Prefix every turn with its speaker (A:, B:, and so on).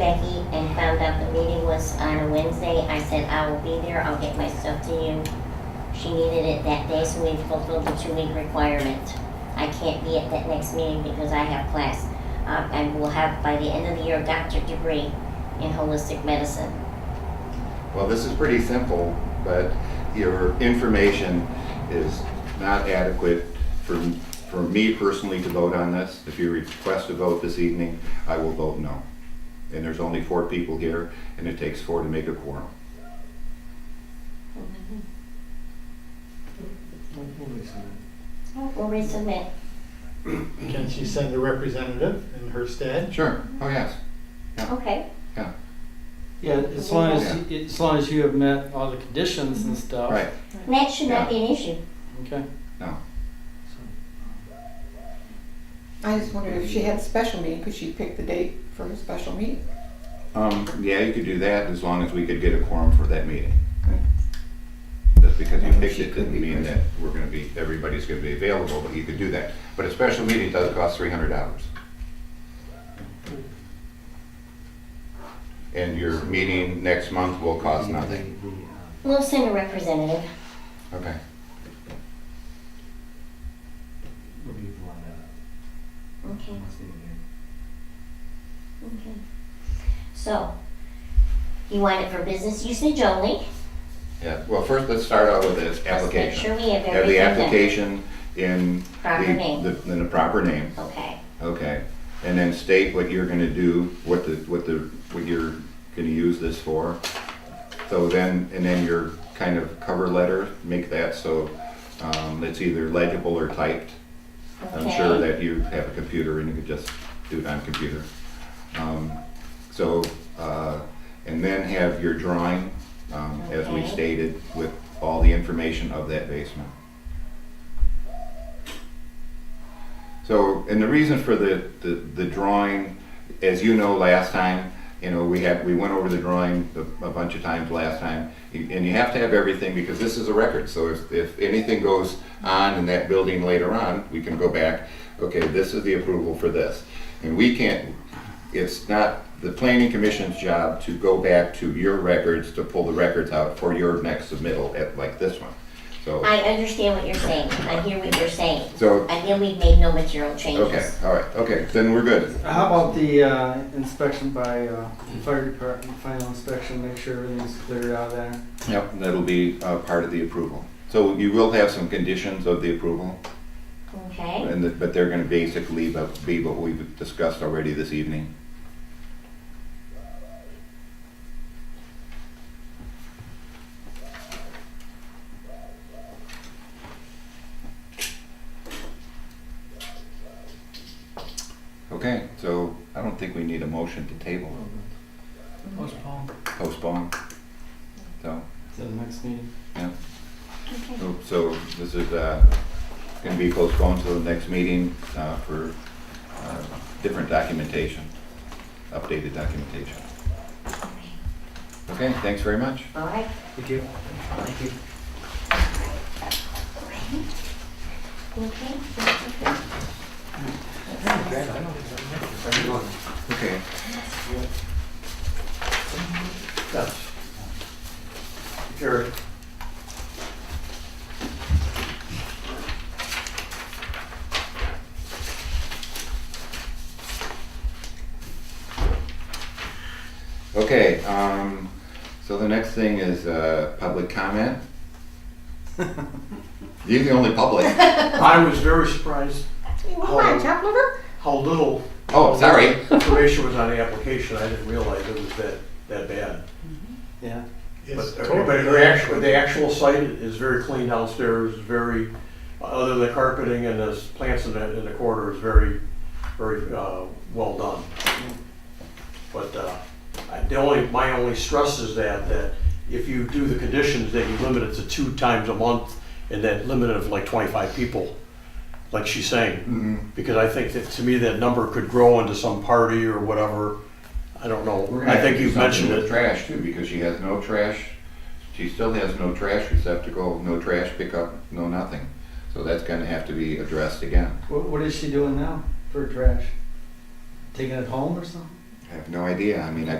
A: Maggie and found out the meeting was on a Wednesday. I said, I will be there, I'll get my stuff to you. She needed it that day, so we fulfilled the two-week requirement. I can't be at that next meeting because I have class. Um, I will have, by the end of the year, a doctorate degree in holistic medicine.
B: Well, this is pretty simple, but your information is not adequate for, for me personally to vote on this. If you request a vote this evening, I will vote no. And there's only four people here, and it takes four to make a quorum.
A: Mm-hmm. We'll resubmit.
C: Can she send a representative in her stead?
B: Sure, oh yes.
A: Okay,
D: Yeah, as long as, as long as you have met all the conditions and stuff.
B: Right,
A: And that should not be an issue.
D: Okay.
E: I just wondered if she had a special meeting, could she pick the date for her special meeting?
B: um, yeah, you could do that as long as we could get a quorum for that meeting. Just because you picked it didn't mean that we're gonna be, everybody's gonna be available, but you could do that. But a special meeting does cost three hundred dollars. And your meeting next month will cost nothing,
A: We'll send a representative.
B: okay?
A: Okay. Okay. So, you want it for business usage only?
B: Yeah, well, first, let's start out with the
A: Let's make
B: application.
A: sure we have
B: Have the
A: everything done.
B: application in
A: Proper name.
B: the, the- in the proper name.
A: Okay,
B: Okay, and then state what you're gonna do, what the, what the, what you're gonna use this for. So then, and then your kind of cover letter, make that so, um, it's either legible or typed. I'm sure
A: okay.
B: that you have a computer and you could just do it on computer. Um, So, uh, and then have your drawing, um, as we
A: Okay.
B: stated, with all the information of that basement. So, and the reason for the, the, the drawing, as you know, last time, you know, we had, we went over the drawing a, a bunch of times last time. You- And you have to have everything because this is a record, so if, if anything goes on in that building later on, we can go back, okay, this is the approval for this. And we can't, it's not the planning commission's job to go back to your records, to pull the records out for your next submittal, at- like this one. So,
A: I understand what you're saying. I hear what you're saying.
B: so,
A: I hear we've made no material
B: okay,
A: changes.
B: all right, okay, then we're good.
D: How about the uh, inspection by uh, the fire department, final inspection, make sure everything's cleared out of there?
B: Yep, and that'll be uh, part of the approval. So you will have some conditions of the approval,
A: Okay,
B: and, the- but they're gonna basically bu- be what we've discussed already this evening. Okay, so I don't think we need a motion to table,
D: Postpone.
B: postpone. So,
D: To the next meeting.
A: okay.
B: So- So this is going to be postponed to the next meeting uh, for uh, different documentation, updated documentation. Okay, thanks very much.
A: All right.
D: Thank you. Thank you.
A: Okay.
B: Okay.
C: Eric.
B: Okay, um, so the next thing is uh, public comment. You're the only public.
F: I was very surprised
E: Why, top liver?
F: how little
B: Oh, sorry.
F: information was on the application. I didn't realize it was that, that bad.
D: Yeah.
C: It's
F: But
C: totally
F: but the actual, the actual site is very clean downstairs, very, other than the carpeting and the plants in the, in the corridor is very, very, uh, well done. But, uh, I- the only, my only stress is that, that if you do the conditions, that you limit it to two times a month and that limit of like twenty-five people, like she's saying.
B: Mhm.
F: Because I think that, to me, that number could grow into some party or whatever. I don't know.
B: We're gonna
F: I
B: have to
F: think
B: do
F: you've
B: something
F: mentioned
B: with
F: it.
B: Trash too, because she has no trash, she still has no trash receptacle, no trash pickup, no nothing. So that's gonna have to be addressed again.
D: What, what is she doing now for trash? Taking it home or something?
B: I have no idea, I mean, I